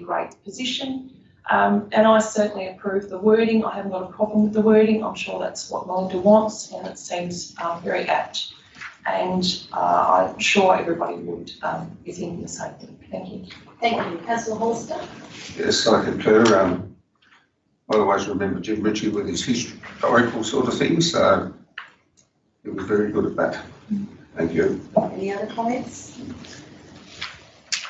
great position. Um, and I certainly approve the wording. I haven't got a problem with the wording. I'm sure that's what Melinda wants and it seems um, very apt. And uh, I'm sure everybody would um, be thinking the same thing. Thank you. Thank you. Councillor Holster? It's like a tour. Um, I always remember Jim Ritchie with his historical sort of things, so he was very good at that. Thank you. Any other comments?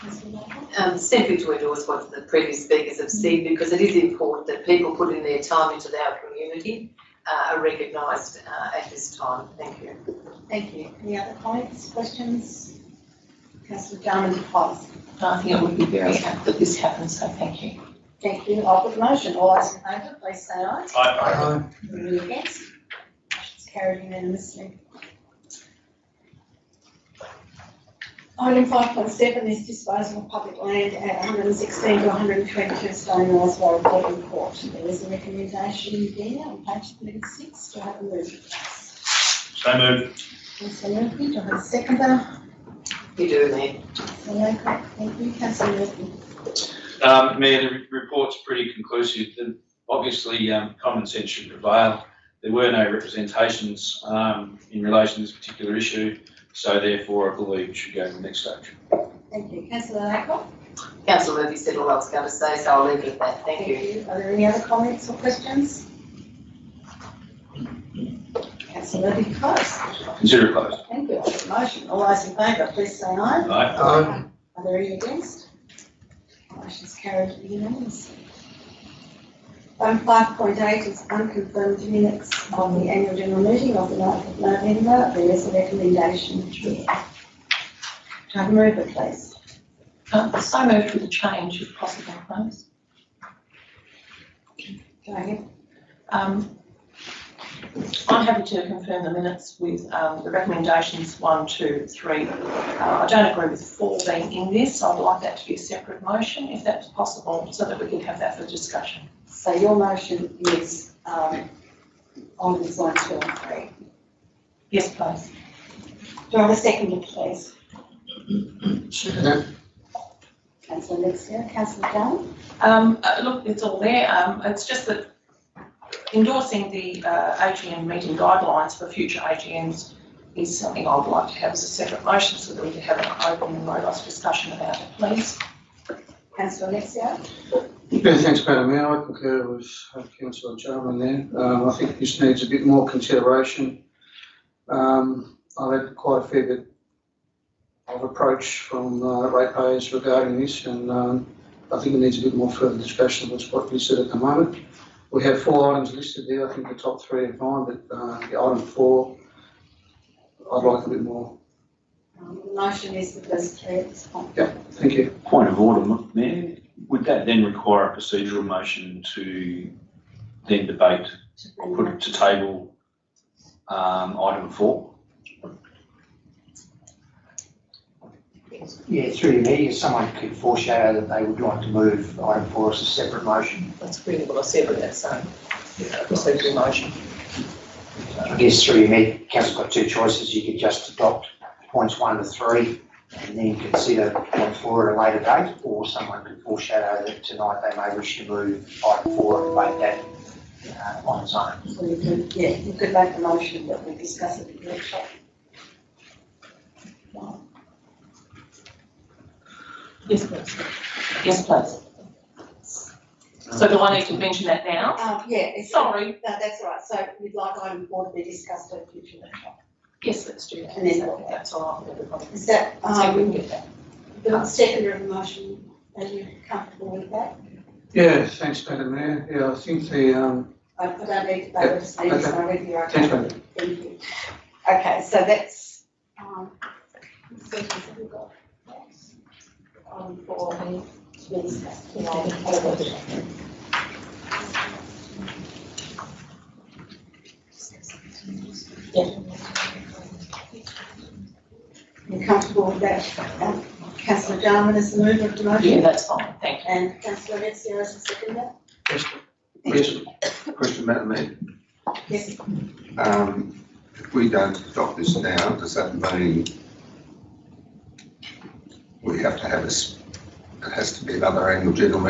Councillor Markham? um, simply to endorse what the previous speakers have said because it is important that people putting their time into our community uh, are recognised uh, at this time. Thank you. Thank you. Any other comments, questions? Councillor Jarman, pause. And I think it would be very apt that this happens, so thank you. Thank you. I'll put the motion. All those in favour, please say aye. Aye. Any against? Motion's carried unanimously. Item five point seven is disposal of public land at one hundred and sixteen to one hundred and twenty-two Stone Mills Road, Devon Court. There is a recommendation there on page thirty-six to have a move. please. So moved. Councillor Murphy, do I have a seconder? You do, Mayor. Councillor Lowcock, thank you. Councillor Murphy. Um, Mayor, the re- report's pretty conclusive. The- Obviously, um, common sense should prevail. There were no representations, um, in relation to this particular issue, so therefore I believe it should go to the next stage. Thank you. Councillor Lowcock? Councillor Murphy said all I was going to say, so I'll leave it at that. Thank you. Are there any other comments or questions? Councillor Murphy, close. Consider it closed. Thank you. Motion, all those in favour, please say aye. Aye. Are there any against? Motion's carried unanimously. Item five point eight is unconfirmed minutes of the annual general meeting of the 9th of November. There is a recommendation chair. Can I move it, please? Um, so moved with a change if possible, please. Go ahead. Um, I'm happy to confirm the minutes with um, the recommendations one, two, three. Uh, I don't agree with four being in this. I'd like that to be a separate motion if that's possible, so that we can have that for discussion. So your motion is, um, on this one, two and three. Yes, please. Do I have a second, please? Second. Councillor Alexia, councillor Dunn? Um, uh, Look, it's all there. Um, It's just that endorsing the uh, AGM meeting guidelines for future AGMs is something I would like to have as a separate motion so that we can have an open and robust discussion about it, please. Councillor Alexia? Yeah, thanks, Madam Mayor. I concur with uh, councillor Jarman there. Um, I think this needs a bit more consideration. Um, I've had quite a fair bit of approach from uh, ratepayers regarding this and um, I think it needs a bit more further discussion than what's listed at the moment. We have four items listed there. I think the top three are fine, but uh, the item four, I'd like a bit more. Um, The motion is the first three at this point. Thank you. Point of order, M- Mayor. Would that then require a procedural motion to then debate or put it to table, um, item four? Yeah, through to me, if someone could foreshadow that they would like to move item four as a separate motion, That's really what I said with that same procedural motion. I guess through to me, council's got two choices, you could just adopt points one to three and then consider point four at a later date, or someone could foreshadow that tonight they may wish to move item four and make that uh, on its own. So you could, yeah, you could make the motion that we discuss at the workshop. Yes, please. Yes, please. So do I need to mention that now? Um, yeah, it's, no, Sorry. that's all right. So we'd like item four to be discussed at a future workshop. Yes, let's do that. And then- That's all right with everybody. Is that, So we can um, get that. the secondary motion, are you comfortable with that? Yeah, thanks, Madam Mayor. Yeah, I think the, um, I I don't need to, I just need to Okay. know whether you're okay. thanks, Madam Thank you. Okay, so that's, um, let's see if we've got that. um, for the, to be discussed tonight at a workshop. Yeah. You comfortable with that? Um, Councillor Jarman is the mover of the Yeah, motion that's fine. Thank and Councillor Alexia is the seconder? Yes, yes, Question, Madam Mayor. Yes. Um, if we don't adopt this now, does that mean we have to have a s- it has to be another annual general meeting.